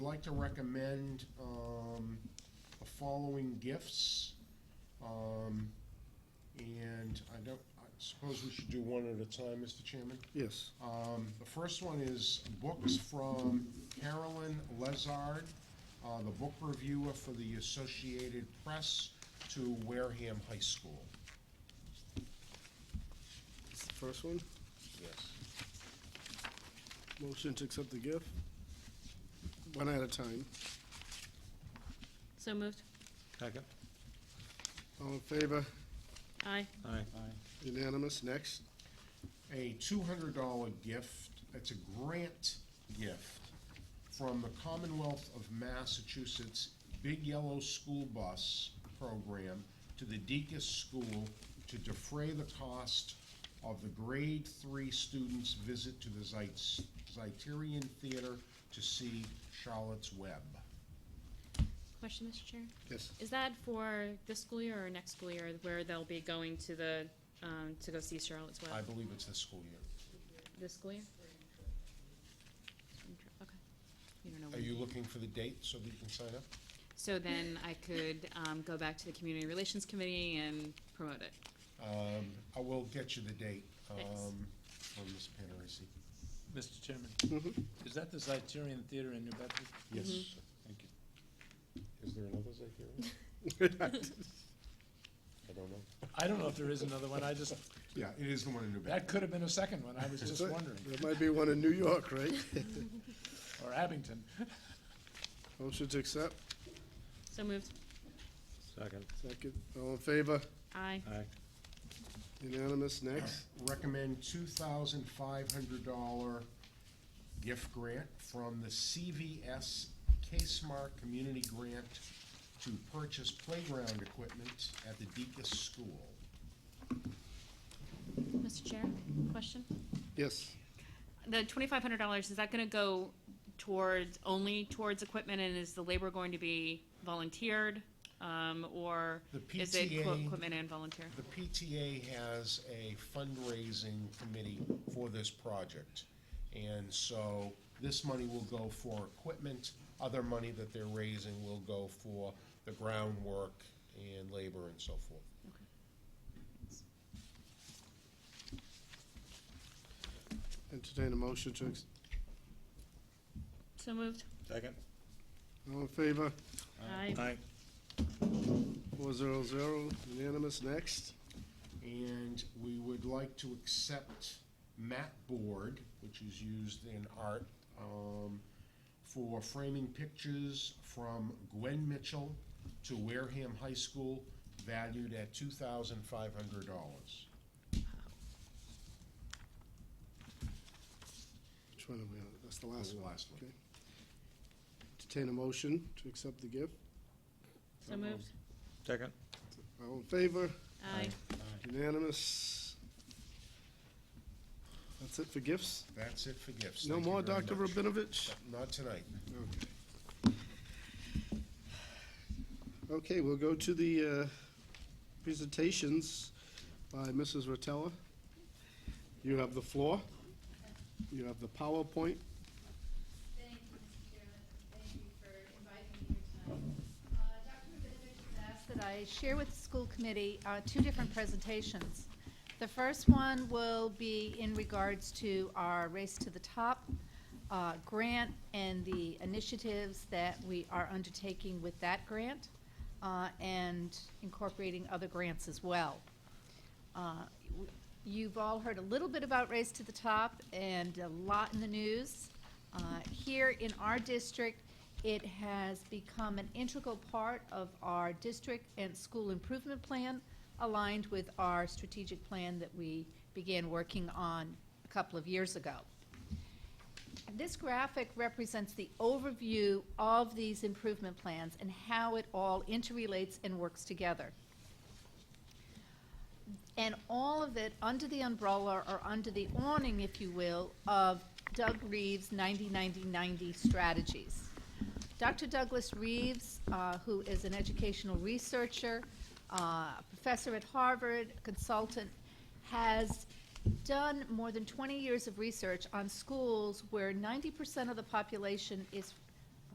like to recommend um, the following gifts. Um, And I don't, I suppose we should do one at a time, Mr. Chairman? Yes. Um, The first one is books from Carolyn Lezard, uh, the book reviewer for the Associated Press to Wareham High School. It's the First one, Yes. motion to accept the gift. One at a time. So moved. Second. All in favor? Aye. Aye. Unanimous. Next. a two hundred dollar gift, it's a grant gift from the Commonwealth of Massachusetts Big Yellow School Bus Program to the Deacon's School to defray the cost of the grade three students' visit to the Zeitz, Zeiterian Theater to see Charlotte's Web. Question, Mr. Chair? Yes. Is that for this school year or next school year where they'll be going to the, um, to go see Charlotte's I Web? believe it's this school year. This school year? Spring trip, Okay. You don't know. Are when. you looking for the date so that you can sign up? So then I could, um, go back to the Community Relations Committee and promote it. Um, I will get you the date, Thanks. um, from Ms. Panarisi. Mr. Chairman, Mhm. is that the Criterion Theater in New Bedford? Yes. Thank you. Is there another Zythera? I don't know. I don't know if there is another one, I just, Yeah, it is the one in New that could have been a second one, I was just wondering, There might be one in New York, right? or Abington. Motion to accept. So moved. Second. Second. All in favor? Aye. Aye. Unanimous. Next. Recommend two thousand five hundred dollar gift grant from the CVS K-Smart Community Grant to purchase playground equipment at the Deacon's School. Mr. Chair, question? Yes. The twenty-five hundred dollars, is that gonna go towards, only towards equipment, and is the labor going to be volunteered? Um, or The is it quote, PTA equipment and volunteer? The PTA has a fundraising committee for this project. And so this money will go for equipment, other money that they're raising will go for the groundwork and labor and so forth. Entertain a motion to, ex- So moved. Second. all in favor? Aye. Aye. Four zero zero. Unanimous. Next. And we would like to accept mat board, which is used in art, um, for framing pictures from Gwen Mitchell to Wareham High School, valued at two thousand five hundred dollars. Which one are we on? That's the last one. Last one. Okay. Entertain a motion to accept the gift. So moved. Second. All in favor? Aye. Unanimous. That's it for gifts? That's it for gifts. No Thank you more, very Dr. much. Rabinovich? Not tonight. Okay, we'll go to the uh, presentations by Mrs. Rotella. You have the floor. You have the PowerPoint. Thank you, Mr. Chairman. Thank you for inviting me here tonight. Uh, Dr. Rabinovich has asked that I share with the school committee uh, two different presentations. The first one will be in regards to our Race to the Top uh, grant and the initiatives that we are undertaking with that grant uh, and incorporating other grants as well. Uh, w- You've all heard a little bit about Race to the Top and a lot in the news. Uh, Here in our district, it has become an integral part of our district and school improvement plan, aligned with our strategic plan that we began working on a couple of years ago. This graphic represents the overview of these improvement plans and how it all interrelates and works together. And all of it under the umbrella or under the awning, if you will, of Doug Reeves' 90-90-90 strategies. Dr. Douglas Reeves, uh, who is an educational researcher, uh, professor at Harvard, consultant, has done more than 20 years of research on schools where 90% of the population is